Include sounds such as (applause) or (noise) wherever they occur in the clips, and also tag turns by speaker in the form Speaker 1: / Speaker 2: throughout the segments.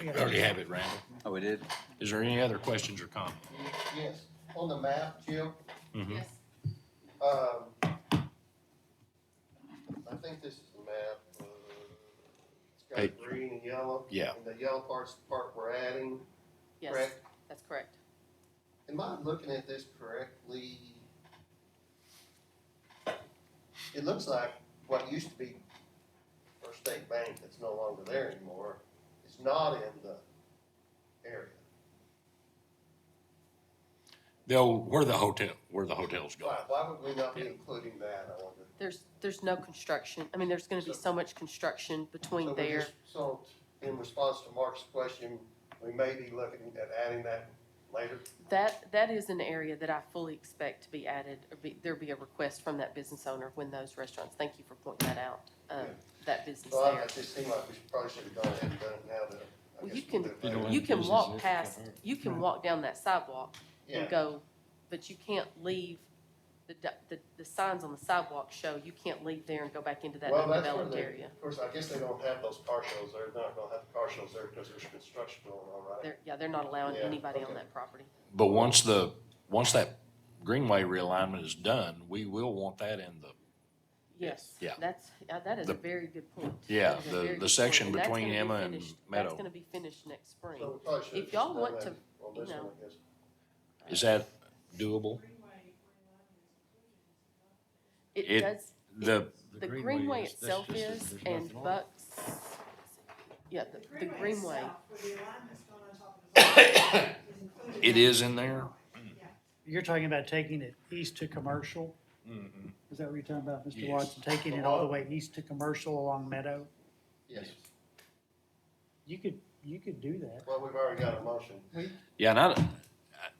Speaker 1: We already have it, Randall.
Speaker 2: Oh, we did?
Speaker 1: Is there any other questions or comments?
Speaker 3: Yes, on the map, Jim,
Speaker 1: Mhm.
Speaker 4: Yes,
Speaker 3: um, I think this is the map. uh, It's
Speaker 1: Page.
Speaker 3: got green and yellow.
Speaker 1: Yeah.
Speaker 3: And the yellow part's the part we're adding,
Speaker 4: yes,
Speaker 3: correct?
Speaker 4: that's correct.
Speaker 3: Am I looking at this correctly? It looks like what used to be First State Bank that's no longer there anymore is not in the area.
Speaker 1: They'll, where the hotel, where the hotel's
Speaker 3: Why,
Speaker 1: going.
Speaker 3: why would we not be including that, I wonder?
Speaker 4: There's, there's no construction, I mean, there's gonna be so much construction
Speaker 3: So
Speaker 4: between
Speaker 3: we're
Speaker 4: there.
Speaker 3: just- So in response to Mark's question, we may be looking at adding that later.
Speaker 4: That, that is an area that I fully expect to be added, or be, there be a request from that business owner when those restaurants, thank you for pointing that out, um, that business
Speaker 3: So I-
Speaker 4: there.
Speaker 3: it just seemed like we should- probably should have gone ahead and done it now that. I
Speaker 4: Well,
Speaker 3: guess
Speaker 4: you
Speaker 3: we'll do
Speaker 4: can-
Speaker 3: it later.
Speaker 4: You can walk past, you can walk down that sidewalk and
Speaker 3: Yeah,
Speaker 4: go, but you can't leave, the, d- the, the signs on the sidewalk show, you can't leave there and go back into that
Speaker 3: Well, that's where
Speaker 4: undeveloped
Speaker 3: they-
Speaker 4: area.
Speaker 3: of course, I guess they don't have those car shows there. They're not gonna have the car shows there because there's construction going on, right?
Speaker 4: They're, yeah, they're not allowing
Speaker 3: Yeah,
Speaker 4: anybody on
Speaker 3: okay.
Speaker 4: that property.
Speaker 1: But once the, once that Greenway realignment is done, we will want that in the,
Speaker 4: Yes.
Speaker 1: Yeah.
Speaker 4: That's, uh, that is
Speaker 1: The-
Speaker 4: a very good point.
Speaker 1: yeah,
Speaker 4: That is a
Speaker 1: the-
Speaker 4: very
Speaker 1: the
Speaker 4: good
Speaker 1: section
Speaker 4: point, that's
Speaker 1: between
Speaker 4: gonna be
Speaker 1: Emma and
Speaker 4: finished-
Speaker 1: Meadow.
Speaker 4: That's gonna be finished next spring.
Speaker 3: So we probably should have
Speaker 4: If
Speaker 3: just
Speaker 4: y'all
Speaker 3: done
Speaker 4: want
Speaker 3: that
Speaker 4: to,
Speaker 3: On
Speaker 4: you
Speaker 3: this one,
Speaker 4: know.
Speaker 3: I guess.
Speaker 1: is that doable? it-
Speaker 4: It does,
Speaker 1: The,
Speaker 4: the greenway itself is, and Bucks, yeah, the, the greenway,
Speaker 1: (coughs) it is in there?
Speaker 5: You're talking about taking it east to commercial? Is that what you're talking about, Mr.
Speaker 1: Mm-hmm. Yes.
Speaker 5: Watson? Taking it all the way east to commercial along Meadow?
Speaker 3: Yes,
Speaker 5: You could, you could do that.
Speaker 3: well, we've already got a motion.
Speaker 1: Yeah, and I,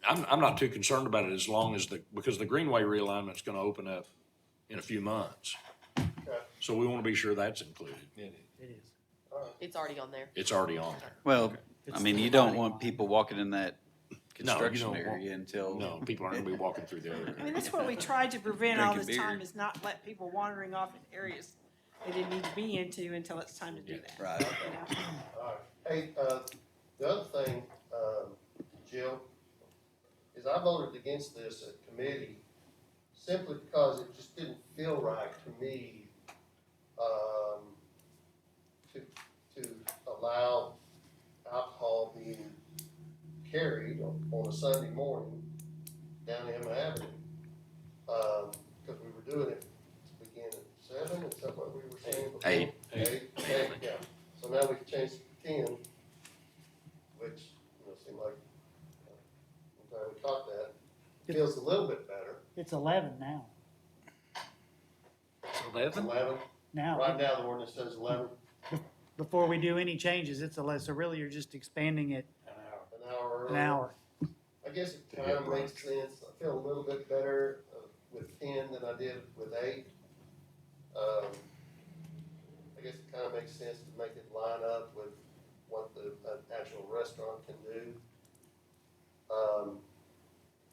Speaker 1: I'm, I'm not too concerned about it as long as the, because the Greenway realignment's gonna open up in a few months. So we wanna be sure that's included.
Speaker 5: It is.
Speaker 4: it's already on there.
Speaker 1: It's already on there.
Speaker 2: Well, I
Speaker 5: It's
Speaker 2: mean,
Speaker 5: the
Speaker 2: you don't
Speaker 5: dividing
Speaker 2: want
Speaker 5: line.
Speaker 2: people walking in that construction
Speaker 1: don't want-
Speaker 2: area until.
Speaker 1: No, people aren't gonna be walking through the other.
Speaker 6: I mean, that's what we tried to prevent all
Speaker 2: Drinking
Speaker 6: this time,
Speaker 2: beer.
Speaker 6: is not let people wandering off in areas they didn't need to be into until it's time to do
Speaker 2: (laughs)
Speaker 6: that.
Speaker 2: Right.
Speaker 6: you know?
Speaker 3: Alright, hey, uh, the other thing, um, Jill, is I voted against this at committee simply because it just didn't feel right to me, um, to, to allow alcohol being carried on, on a Sunday morning down Emma Avenue. Um, cause we were doing it to begin at seven, is that what we were saying before?
Speaker 2: Eight.
Speaker 3: Eight, eight, yeah. So now we've changed to ten, which, you know, seemed like, uh, I'm glad we caught that. Feels a little bit better.
Speaker 5: It's eleven now.
Speaker 1: Eleven?
Speaker 3: Eleven, right
Speaker 5: Now,
Speaker 3: now the ordinance says eleven,
Speaker 5: before we do any changes, it's eleven, so really you're just expanding it
Speaker 3: an hour earlier.
Speaker 5: an hour.
Speaker 3: I guess it
Speaker 1: To get
Speaker 3: kinda makes
Speaker 1: brunch.
Speaker 3: sense. I feel a little bit better uh, with ten than I did with eight. Um, I guess it kinda makes sense to make it line up with what the, an actual restaurant can do. Um,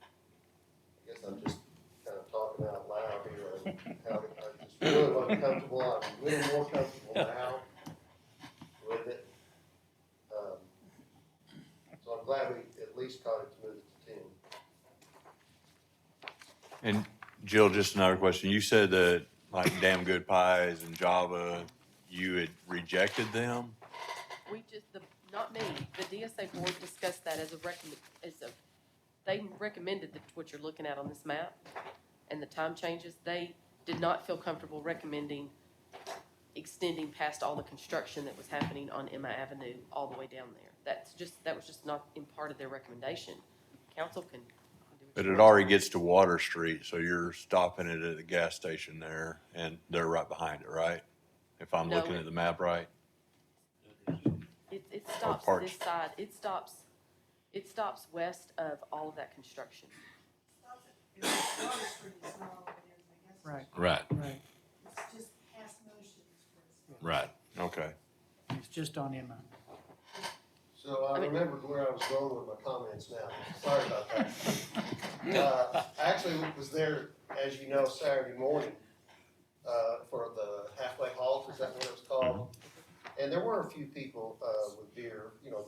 Speaker 3: I guess I'm just kinda talking out loud here and how I just feel uncomfortable. I'm a little more comfortable now with it. Um, so I'm glad we at least caught it to move it to ten.
Speaker 7: And Jill, just another question. You said that like Damn Good Pies and Java, you had rejected them?
Speaker 4: We just, the, not me, the DSA board discussed that as a recommend, as a, they recommended that what you're looking at on this map and the time changes, they did not feel comfortable recommending extending past all the construction that was happening on Emma Avenue all the way down there. That's just, that was just not in part of their recommendation. Council can. do what you
Speaker 7: But it
Speaker 4: want.
Speaker 7: already gets to Water Street, so you're stopping it at the gas station there and they're right behind it, right? If I'm
Speaker 4: No,
Speaker 7: looking
Speaker 4: it-
Speaker 7: at the map right?
Speaker 4: It, it stops
Speaker 7: parts.
Speaker 4: this side, it stops, it stops west of all of that construction.
Speaker 5: Right,
Speaker 1: Right,
Speaker 5: right.
Speaker 6: It's just past motions.
Speaker 1: right.
Speaker 7: Okay.
Speaker 5: It's just on Emma.
Speaker 3: So I
Speaker 4: I mean-
Speaker 3: remembered where I was going with my comments now. Sorry
Speaker 5: (laughs)
Speaker 3: about that.
Speaker 1: (laughs)
Speaker 3: Uh, I actually was there, as you know, Saturday morning, uh, for the halfway halt, is that what it was called? And there were a few people, uh, with beer, you know,